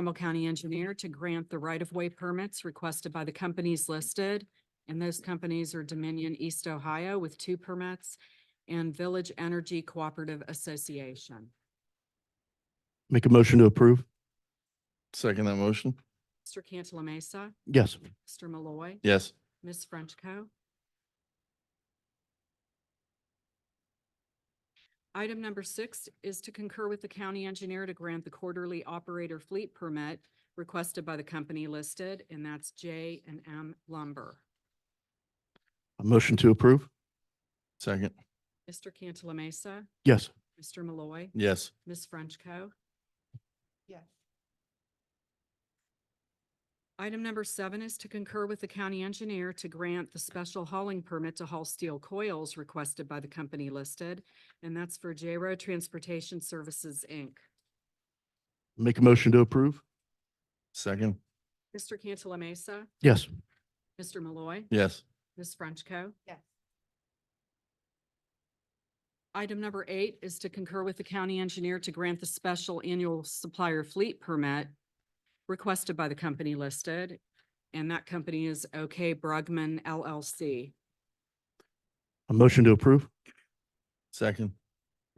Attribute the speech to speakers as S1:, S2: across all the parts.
S1: Trumbull County Engineer to grant the right-of-way permits requested by the companies listed. And those companies are Dominion East Ohio with two permits and Village Energy Cooperative Association.
S2: Make a motion to approve?
S3: Second that motion?
S1: Mr. Cantala Mesa,
S2: Yes.
S1: Mr. Malloy,
S3: Yes.
S1: Ms. Frenchco. Item number six is to concur with the county engineer to grant the quarterly operator fleet permit requested by the company listed, and that's J and M Lumber.
S2: A motion to approve?
S3: Second?
S1: Mr. Cantala Mesa,
S2: Yes.
S1: Mr. Malloy,
S3: Yes.
S1: Ms. Frenchco.
S4: yes,
S1: Item number seven is to concur with the county engineer to grant the special hauling permit to haul steel coils requested by the company listed, and that's for j Transportation Services, Inc.
S2: Make a motion to approve?
S3: Second?
S1: Mr. Cantala Mesa,
S2: Yes.
S1: Mr. Malloy,
S3: Yes.
S1: Ms. Frenchco.
S4: yes,
S1: Item number eight is to concur with the county engineer to grant the special annual supplier fleet permit requested by the company listed, and that company is OK Brugman LLC.
S2: A motion to approve?
S3: Second?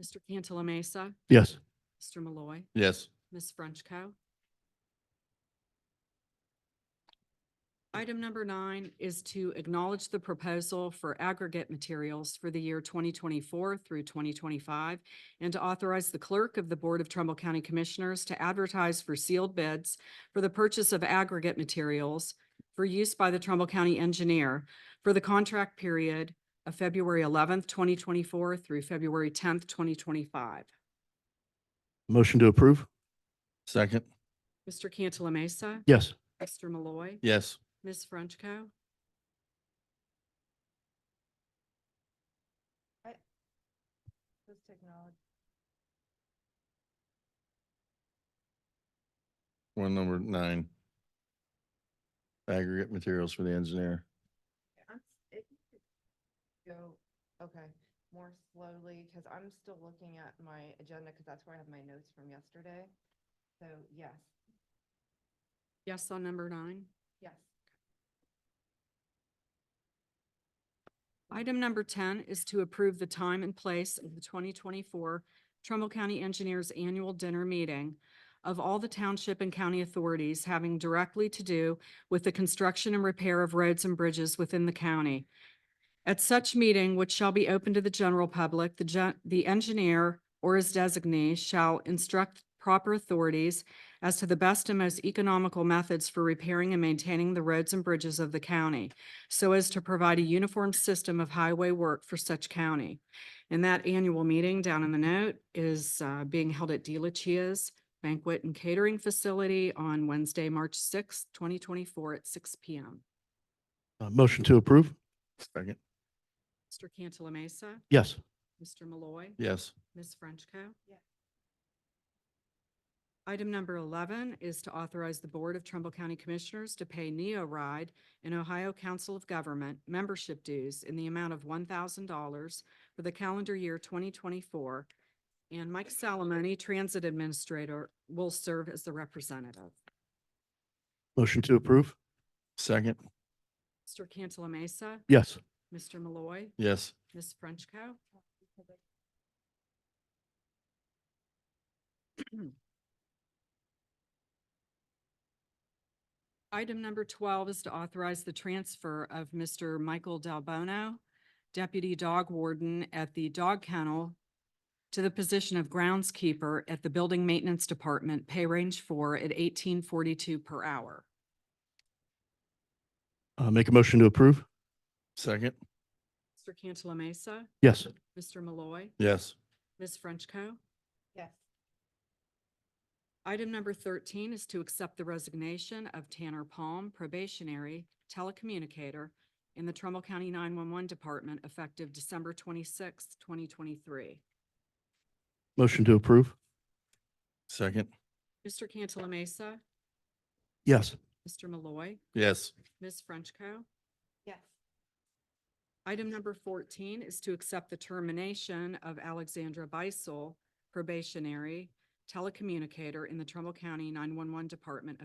S1: Mr. Cantala Mesa,
S2: Yes.
S1: Mr. Malloy.
S3: Yes.
S1: Ms. Frenchco. Item number nine is to acknowledge the proposal for aggregate materials for the year twenty twenty-four through twenty twenty-five and to authorize the clerk of the Board of Trumbull County Commissioners to advertise for sealed bids for the purchase of aggregate materials for use by the Trumbull County Engineer for the contract period of February eleventh, twenty twenty-four through February tenth, twenty twenty-five.
S2: Motion to approve?
S3: Second?
S1: Mr. Cantala Mesa.
S2: Yes.
S1: Mr. Malloy.
S3: Yes.
S1: Ms. Frenchco.
S4: those technology,
S3: One number nine. Aggregate materials for the engineer.
S4: I'm, s- if you could go, okay, more slowly, because I'm still looking at my agenda, because that's where I have my notes from yesterday. So yes,
S1: Yes on number nine.
S4: yes,
S1: Item number ten is to approve the time and place of the twenty twenty-four Trumbull County Engineers Annual Dinner Meeting of all the township and county authorities having directly to do with the construction and repair of roads and bridges within the county. At such meeting, which shall be open to the general public, the gen- the engineer or his designee shall instruct proper authorities as to the best and most economical methods for repairing and maintaining the roads and bridges of the county so as to provide a uniform system of highway work for such county. And that annual meeting down in the note is uh, being held at De La Chia's Banquet and Catering Facility on Wednesday, March sixth, twenty twenty-four at six P M.
S2: A motion to approve?
S3: Second?
S1: Mr. Cantala Mesa,
S2: Yes.
S1: Mr. Malloy.
S3: Yes.
S1: Ms. Frenchco.
S4: Yes.
S1: Item number eleven is to authorize the Board of Trumbull County Commissioners to pay Neo Ride and Ohio Council of Government membership dues in the amount of one thousand dollars for the calendar year twenty twenty-four. And Mike Salamone, Transit Administrator, will serve as the representative.
S2: Motion to approve?
S3: Second?
S1: Mr. Cantala Mesa,
S2: Yes.
S1: Mr. Malloy,
S3: Yes.
S1: Ms. Frenchco.
S4: because I
S1: Item number twelve is to authorize the transfer of Mr. Michael Dalbono, Deputy Dog Warden at the Dog Kennel, to the position of groundskeeper at the Building Maintenance Department, pay range four at eighteen forty-two per hour.
S2: Uh, make a motion to approve?
S3: Second?
S1: Mr. Cantala Mesa,
S2: Yes.
S1: Mr. Malloy,
S3: Yes.
S1: Ms. Frenchco.
S4: Yes,
S1: Item number thirteen is to accept the resignation of Tanner Palm, probationary telecommunicator in the Trumbull County nine-one-one Department effective December twenty-sixth, twenty twenty-three.
S2: Motion to approve?
S3: Second?
S1: Mr. Cantala Mesa,
S2: Yes.
S1: Mr. Malloy,
S3: Yes.
S1: Ms. Frenchco.
S4: yes,
S1: Item number fourteen is to accept the termination of Alexandra Beisel, probationary telecommunicator in the Trumbull County nine-one-one Department of